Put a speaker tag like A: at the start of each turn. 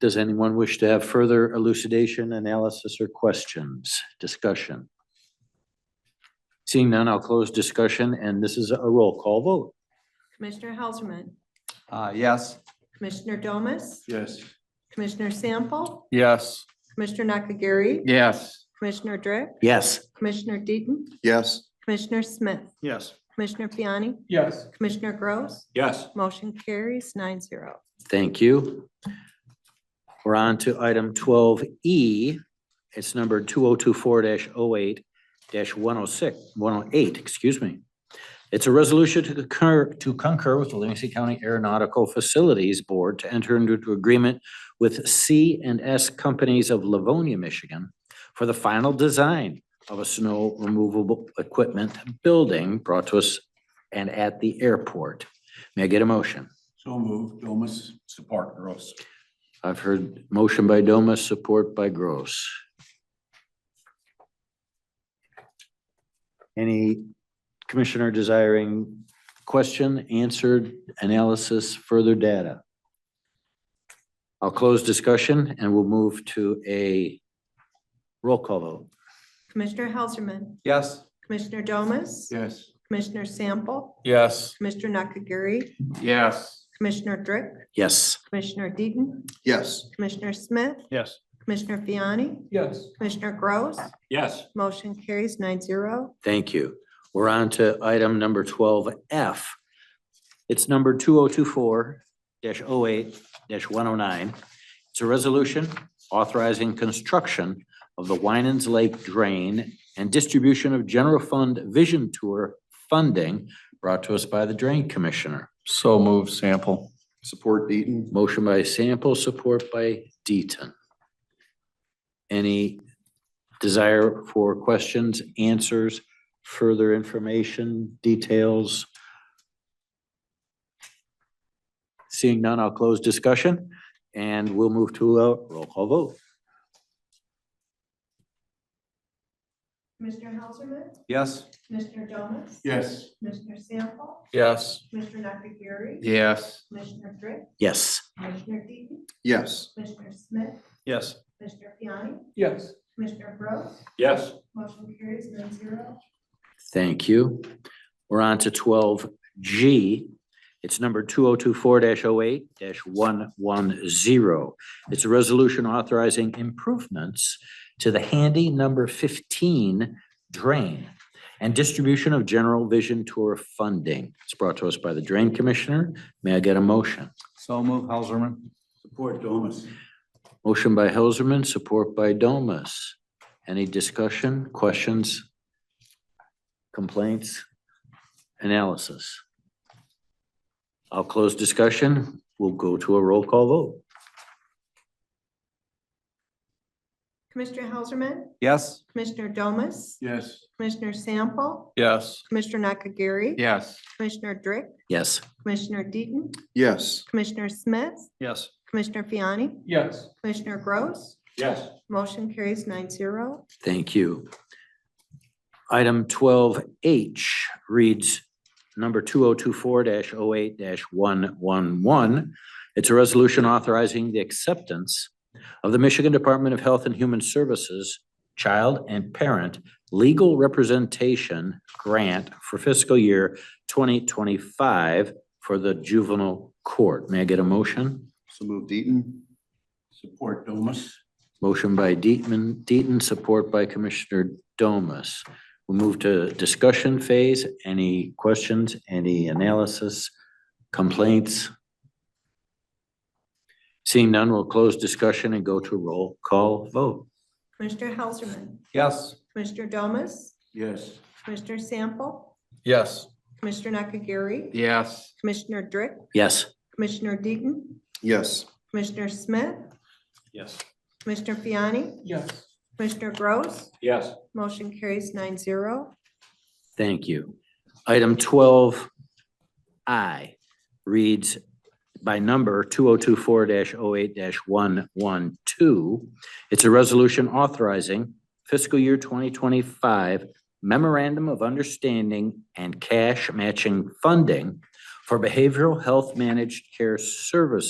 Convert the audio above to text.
A: Does anyone wish to have further elucidation, analysis, or questions, discussion? Seeing none, I'll close discussion, and this is a roll call vote.
B: Commissioner Helserman,
C: Uh, yes.
B: Commissioner Domas,
C: Yes.
B: Commissioner Sample,
C: Yes.
B: Commissioner Nakagiri,
C: Yes.
B: Commissioner Drick,
A: Yes.
B: Commissioner Deaton,
C: Yes.
B: Commissioner Smith,
C: Yes.
B: Commissioner Fiani,
C: Yes.
B: Commissioner Gross,
C: Yes.
B: motion carries nine zero.
A: Thank you. We're on to item twelve E. It's number two oh two four 8 one oh six, one oh eight, excuse me. It's a resolution to concur, to concur with the Livingston County Aeronautical Facilities Board to enter into agreement with C and S Companies of Livonia, Michigan for the final design of a snow removable equipment building brought to us and at the airport. May I get a motion?
D: So moved, Domas, support Gross.
A: I've heard motion by Domas, support by Gross. Any commissioner desiring question, answered, analysis, further data? I'll close discussion and we'll move to a roll call vote.
B: Commissioner Helserman,
C: Yes.
B: Commissioner Domas,
D: Yes.
B: Commissioner Sample,
C: Yes.
B: Commissioner Nakagiri,
C: Yes.
B: Commissioner Drick,
A: Yes.
B: Commissioner Deaton,
D: Yes.
B: Commissioner Smith,
C: Yes.
B: Commissioner Fiani,
C: Yes.
B: Commissioner Gross,
D: Yes.
B: motion carries nine zero.
A: Thank you. We're on to item number twelve F. It's number two oh two four 8 one oh nine. It's a resolution authorizing construction of the Winans Lake Drain and distribution of general fund vision tour funding brought to us by the Drain Commissioner.
C: So move sample.
D: Support Deaton.
A: Motion by Sample, support by Deaton. Any desire for questions, answers, further information, details? Seeing none, I'll close discussion and we'll move to a roll call vote.
B: Commissioner Helserman,
C: Yes.
B: Commissioner Domas,
D: Yes.
B: Commissioner Sample,
C: Yes.
B: Commissioner Nakagiri,
C: Yes.
B: Commissioner Drick,
A: Yes.
B: Commissioner Deaton,
D: Yes.
B: Commissioner Smith,
C: Yes.
B: Commissioner Fiani,
C: Yes.
B: Commissioner Gross,
D: Yes.
B: motion carries nine zero.
A: Thank you. We're on to twelve G. It's number two oh two four 8 one one zero. It's a resolution authorizing improvements to the handy number fifteen drain and distribution of general vision tour funding. It's brought to us by the Drain Commissioner. May I get a motion?
C: So move Helserman.
D: Support Domas.
A: Motion by Helserman, support by Domas. Any discussion, questions? Complaints? Analysis? I'll close discussion. We'll go to a roll call vote.
B: Commissioner Helserman,
C: Yes.
B: Commissioner Domas,
D: Yes.
B: Commissioner Sample,
C: Yes.
B: Commissioner Nakagiri.
C: Yes.
B: Commissioner Drick,
A: Yes.
B: Commissioner Deaton,
D: Yes.
B: Commissioner Smith,
C: Yes.
B: Commissioner Fiani,
C: Yes.
B: Commissioner Gross,
D: Yes.
B: motion carries nine zero.
A: Thank you. Item twelve H reads number two oh two four 8 one one one. It's a resolution authorizing the acceptance of the Michigan Department of Health and Human Services Child and Parent Legal Representation Grant for fiscal year twenty twenty-five for the juvenile court. May I get a motion?
D: So moved Deaton. Support Domas.
A: Motion by Deaton, Deaton, support by Commissioner Domas. We'll move to discussion phase. Any questions, any analysis, complaints? Seeing none, we'll close discussion and go to roll call vote.
B: Commissioner Helserman,
C: Yes.
B: Commissioner Domas,
D: Yes.
B: Commissioner Sample,
C: Yes.
B: Commissioner Nakagiri,
C: Yes.
B: Commissioner Drick,
A: Yes.
B: Commissioner Deaton,
D: Yes.
B: Commissioner Smith,
C: Yes.
B: Commissioner Fiani,
C: Yes.
B: Commissioner Gross,
D: Yes.
B: motion carries nine zero.
A: Thank you. Item twelve I reads by number two oh two four 8 one one two. It's a resolution authorizing fiscal year twenty twenty-five memorandum of understanding and cash matching funding for behavioral health managed care services.